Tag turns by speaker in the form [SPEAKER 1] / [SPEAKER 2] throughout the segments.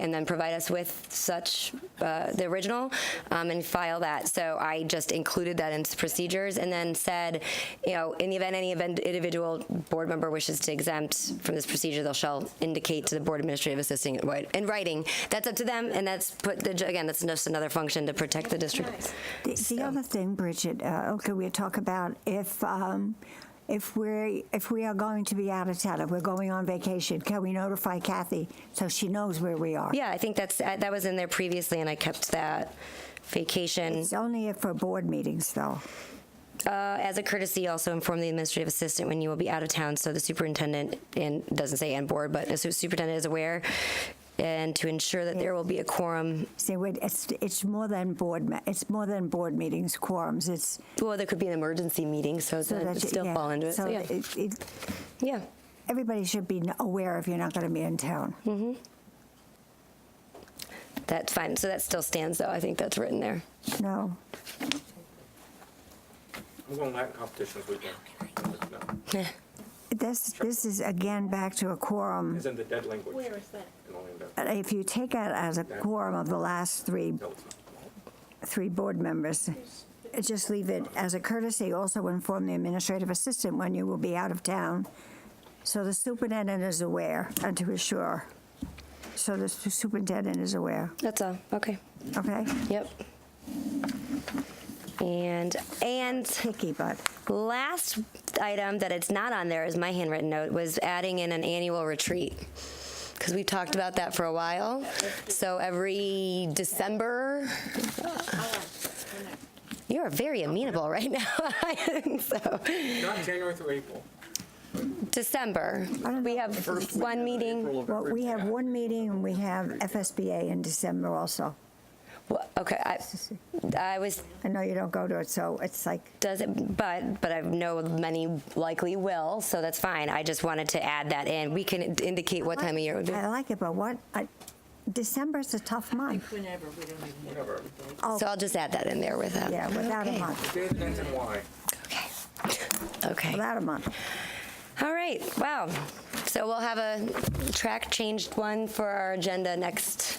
[SPEAKER 1] and then provide us with such, uh, the original, um, and file that. So I just included that into procedures and then said, you know, in the event any event individual board member wishes to exempt from this procedure, they'll shall indicate to the board administrative assistant in wri- in writing. That's up to them, and that's put, the ju- again, that's just another function to protect the district.
[SPEAKER 2] The, the other thing, Bridget, uh, okay, we talk about if um, if we're if we are going to be out of town, if we're going on vacation, can we notify Kathy so she knows where we are?
[SPEAKER 1] Yeah, I think that's, uh, that was in there previously, and I kept that vacation.
[SPEAKER 2] It's only if for board meetings, though.
[SPEAKER 1] Uh, As a courtesy, also inform the administrative assistant when you will be out of town, so the superintendent, and it doesn't say and board, but the su- superintendent is aware, and to ensure that there will be a quorum.
[SPEAKER 2] See, we- it's it's more than board me- it's more than board meetings quorums. It's
[SPEAKER 1] Well, there could be an emergency meeting, so it
[SPEAKER 2] so
[SPEAKER 1] would
[SPEAKER 2] that you-
[SPEAKER 1] still
[SPEAKER 2] yeah,
[SPEAKER 1] fall into it.
[SPEAKER 2] So
[SPEAKER 1] So, yeah.
[SPEAKER 2] it, it,
[SPEAKER 1] Yeah,
[SPEAKER 2] everybody should be aware if you're not going to be in town.
[SPEAKER 1] Hmm. that's fine. So that still stands, though. I think that's written there.
[SPEAKER 2] No,
[SPEAKER 3] I'm going Latin competition this weekend. No,
[SPEAKER 2] this this is again back to a quorum.
[SPEAKER 3] It's in the dead language.
[SPEAKER 4] Where is that?
[SPEAKER 3] In Orlando.
[SPEAKER 2] Uh, If you take out as a quorum of the last three
[SPEAKER 3] No, it's not.
[SPEAKER 2] three board members. Just leave it as a courtesy, also inform the administrative assistant when you will be out of town, so the superintendent is aware and to assure. So the su- superintendent is aware,
[SPEAKER 1] That's all. Okay.
[SPEAKER 2] okay?
[SPEAKER 1] Yep. And, and
[SPEAKER 2] Picky, but
[SPEAKER 1] Last item that it's not on there is my handwritten note was adding in an annual retreat. Because we've talked about that for a while. So every December, you're very amenable right now. So,
[SPEAKER 3] Not January through April.
[SPEAKER 1] December, we have one meeting.
[SPEAKER 2] well, we have one meeting and we have FSBA in December also.
[SPEAKER 1] Well, Okay, I, I was,
[SPEAKER 2] I know you don't go to it, so it's like,
[SPEAKER 1] doesn't, but, but I know many likely will, so that's fine. I just wanted to add that in. We can indicate what time of year it would be.
[SPEAKER 2] I like it, but what, I- December's a tough month.
[SPEAKER 4] Whenever, we don't even know.
[SPEAKER 3] Whatever.
[SPEAKER 2] Oh,
[SPEAKER 1] So I'll just add that in there with uh, that.
[SPEAKER 2] yeah, without a
[SPEAKER 1] Okay.
[SPEAKER 2] month,
[SPEAKER 3] Day that ends in Y.
[SPEAKER 1] Okay. Okay.
[SPEAKER 2] without a month.
[SPEAKER 1] All right. Wow. So we'll have a track changed one for our agenda next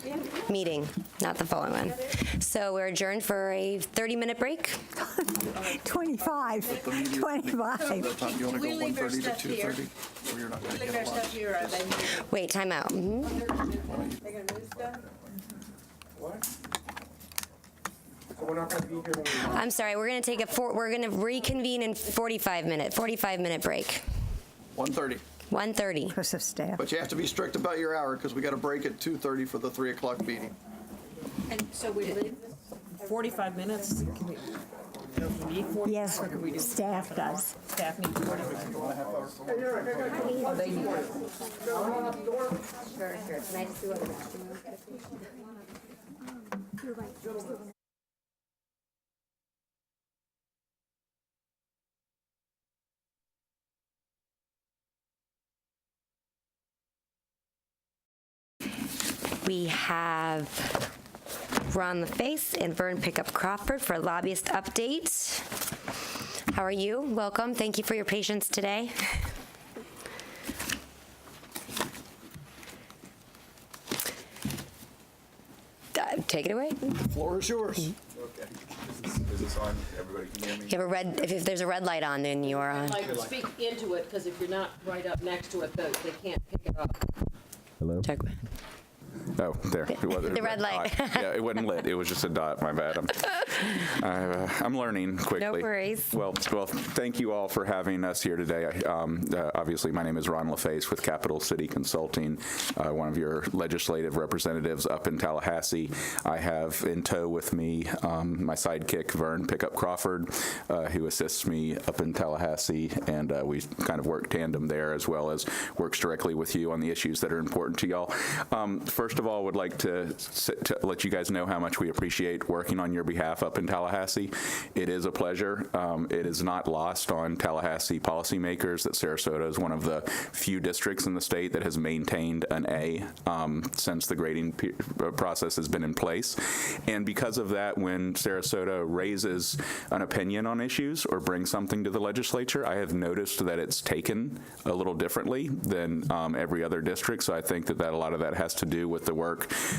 [SPEAKER 1] meeting, not the following one. So we're adjourned for a 30-minute break.
[SPEAKER 2] 25, 25.
[SPEAKER 5] That time, you want to
[SPEAKER 4] We
[SPEAKER 5] go one
[SPEAKER 4] leave our
[SPEAKER 5] thirty to
[SPEAKER 4] stuff
[SPEAKER 5] two
[SPEAKER 4] here.
[SPEAKER 5] thirty? Or you're not going to
[SPEAKER 4] Look
[SPEAKER 5] get
[SPEAKER 4] our
[SPEAKER 5] a lot?
[SPEAKER 4] stuff here, are they?
[SPEAKER 1] Wait, timeout. Mhm.
[SPEAKER 4] They're gonna move stuff?
[SPEAKER 3] What? So we're not gonna be here when we.
[SPEAKER 1] I'm sorry. We're going to take a four, we're going to reconvene in 45 minute, 45 minute break.
[SPEAKER 5] One thirty,
[SPEAKER 1] 1:30.
[SPEAKER 2] Because of staff.
[SPEAKER 5] but you have to be strict about your hour because we got to break at two thirty for the three o'clock meeting.
[SPEAKER 4] And so we leave this?
[SPEAKER 6] 45 minutes? Can we- do we need 45?
[SPEAKER 2] Yes,
[SPEAKER 6] Or do we just
[SPEAKER 2] staff does.
[SPEAKER 6] staff need 45?
[SPEAKER 1] We have Ron LaFace and Vern Pickup Crawford for lobbyist update. How are you? Welcome. Thank you for your patience today. Uh, Take it away.
[SPEAKER 5] The floor is yours.
[SPEAKER 7] Okay. Is this- Is this on? Everybody can hear me?
[SPEAKER 1] You have a red, if- if there's a red light on, then you are on.
[SPEAKER 8] Like, speak into it, because if you're not right up next to it, though, they can't pick it up.
[SPEAKER 7] Hello?
[SPEAKER 1] Check.
[SPEAKER 7] Oh, there. It wasn't
[SPEAKER 1] The red light.
[SPEAKER 7] dot. Yeah, it wasn't lit. It was just a dot. My bad. I'm, I, uh, I'm learning quickly.
[SPEAKER 1] worries.
[SPEAKER 7] Well, well, thank you all for having us here today. I, um, uh, obviously, my name is Ron LaFace with Capital City Consulting, uh, one of your legislative representatives up in Tallahassee. I have in tow with me um, my sidekick, Vern Pickup Crawford, uh, who assists me up in Tallahassee, and uh, we kind of work tandem there as well as works directly with you on the issues that are important to y'all. Um, first of all, would like to, s- to let you guys know how much we appreciate working on your behalf up in Tallahassee. It is a pleasure. Um, it is not lost on Tallahassee policymakers that Sarasota is one of the few districts in the state that has maintained an A um, since the grading pe- uh, process has been in place. And because of that, when Sarasota raises an opinion on issues or brings something to the legislature, I have noticed that it's taken a little differently than um, every other district. So I think that, that a lot of that has to do with the work